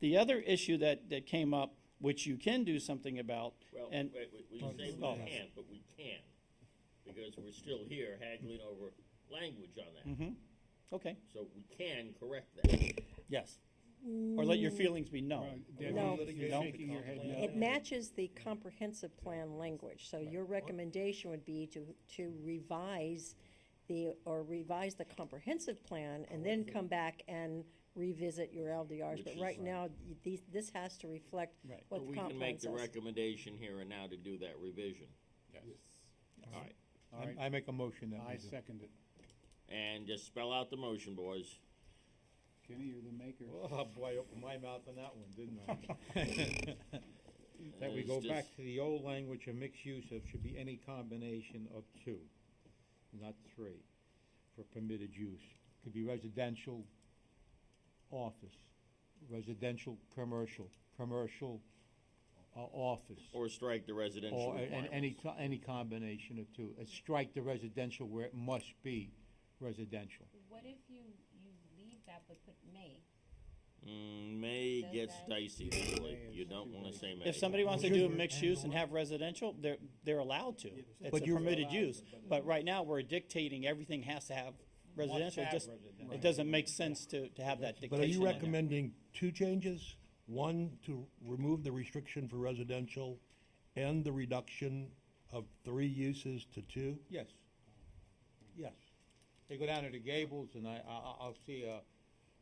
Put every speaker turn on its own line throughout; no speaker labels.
The other issue that, that came up, which you can do something about,
Well,
and,
wait, wait, we say we
Oh.
can't, but we can, because we're still here haggling over language on
Mm.
that.
Mhm. okay,
So we can correct that.
yes. Or let your feelings be known.
Right, Debbie,
No.
you're
No.
shaking your head no.
It matches the comprehensive plan language, so your recommendation would be to, to revise the, or revise the comprehensive plan and then come back and revisit your LDRs,
Which
but
is-
right now, these, this has to reflect
Right.
what the
We
comp
can
plan
make the
says.
recommendation here and now to do that revision. All right,
All right,
I make a motion that
I
we do.
second it.
and just spell out the motion, boys.
Kenny, you're the maker.
Oh, boy, I opened my mouth on that one, didn't I? Mm. That we
It's
go
just-
back to the old language of mixed use of should be any combination of two, not three, for permitted use. Could be residential, office, residential, commercial, commercial, uh, office.
Or strike the residential
Or, and any,
requirements.
co- any combination of two. Uh, Strike the residential where it must be residential.
What if you, you leave that but put may?
Mm, May
Does
gets
that-
dicey legally, you don't wanna say may.
If somebody wants to do a mixed use and have residential, they're, they're allowed to. It's a
But you're-
permitted use. But right now, we're dictating everything has to have residential, just, it doesn't make sense to, to have that
But are
dictation
you
in there.
recommending two changes? One, to remove the restriction for residential and the reduction of three uses to two?
Yes.
Yes.
They go down to the Gables, and I, I, I- I'll see, uh,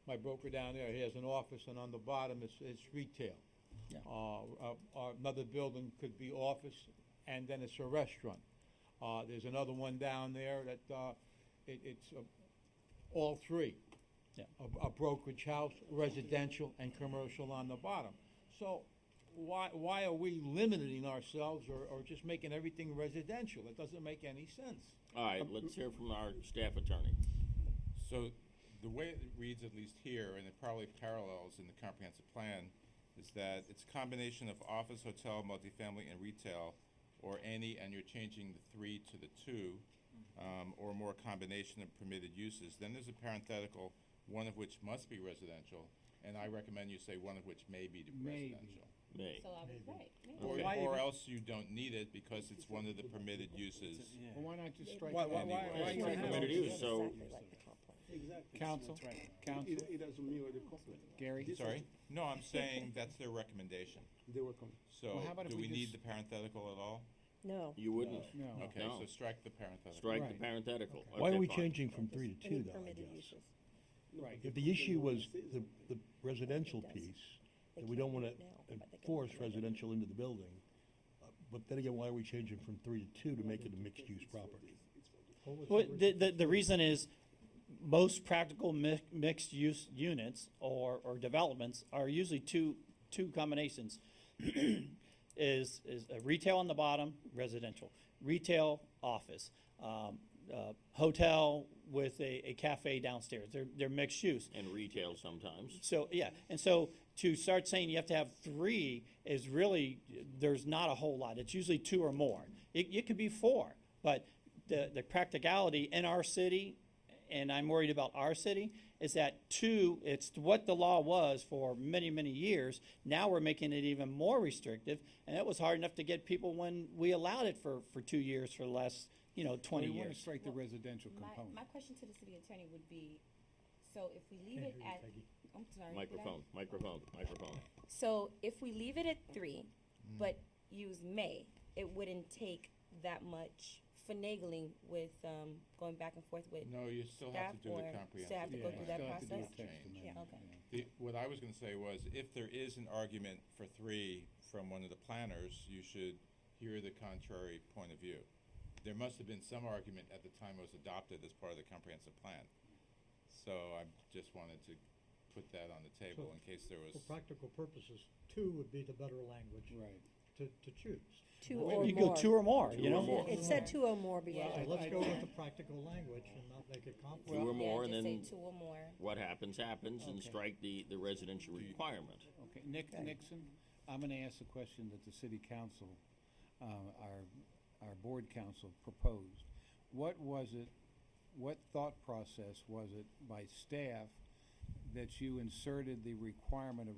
my broker down there, he has an office, and on the bottom, it's, it's retail.
Yeah.
Uh, uh, uh, another building could be office, and then it's a restaurant. Uh, there's another one down there that, uh, it, it's, uh, all three.
Yeah.
A, a brokerage house, residential, and commercial on the bottom. So, why, why are we limiting ourselves or, or just making everything residential? It doesn't make any sense.
All right,
Um,
let's hear from our staff attorney.
So the way it reads, at least here, and it probably parallels in the comprehensive plan, is that it's a combination of office, hotel, multifamily, and retail, or any, and you're changing the three to the two, um, or more combination of permitted uses. Then there's a parenthetical, one of which must be residential, and I recommend you say one of which may be
Maybe.
residential.
May.
So I was right, may.
Okay.
Or,
Why
or
even-
else you don't need it because it's one of the permitted uses.
Well, why not just strike
Why-
that?
why- why-
Anyway.
why
It's
you
like
have-
permitted use,
Exactly
so
like the comp plan.
Council, council. It doesn't mean what Gary?
Sorry? No, I'm saying that's their recommendation.
They were coming.
So,
how about if
do
we
we need
just-
the parenthetical at all?
No,
you wouldn't.
No.
Okay,
No.
so strike the parenthetical.
Strike the
Right.
parenthetical.
Why
Okay,
are we
fine.
changing from three to
any
two, though, I
permitted
guess?
uses.
Right.
If the issue was the, the residential
It does.
piece,
They
that we don't
can't do
wanna
it now, but they can
enforce
do it later.
residential into the building, uh, but then again, why are we changing from three to two to make it a mixed-use property?
Well, the, the, the reason is, most practical mi- mixed-use units or, or developments are usually two, two combinations. Is, is a retail on the bottom, residential, retail, office, um, uh, hotel with a, a cafe downstairs, they're, they're mixed use.
And retail sometimes.
So, yeah, and so to start saying you have to have three is really, there's not a whole lot. It's usually two or more. It, it could be four, but the, the practicality in our city, and I'm worried about our city, is that two, it's what the law was for many, many years. Now we're making it even more restrictive, and it was hard enough to get people when we allowed it for, for two years for the last, you know, twenty
We wanna
years.
strike the residential component.
My, my question to the city attorney would be, so if we leave it at, I'm sorry. did I-
Microphone, microphone, microphone.
So if we leave it at three, but use may, it wouldn't take that much finagling with, um, going back and forth with,
No, you still have
Staff
to do the
or
comprehensive.
staff to go
Yeah,
through
you
that
still have to do a
process?
text
Change.
amendment,
Yeah, okay.
The, what I was gonna say was, if there is an argument for three from one of the planners, you should hear the contrary point of view. There must have been some argument at the time it was adopted as part of the comprehensive plan. So I just wanted to put that on the table in case there was.
For practical purposes, two would be the better language
Right.
to, to choose.
Two
Well,
or
You go
more.
two or more,
Two
you know?
or more.
It said two or more
Well,
before.
So
I-
let's
I-
go with the practical language and not make it
Two
complicated.
or more,
Yeah,
and
just say
then
two or more.
what happens, happens, and
Okay.
strike the, the residential requirement.
Okay, Nick, Nixon, I'm gonna ask a question that the city council, uh, our, our board council proposed. What was it, what thought process was it by staff that you inserted the requirement of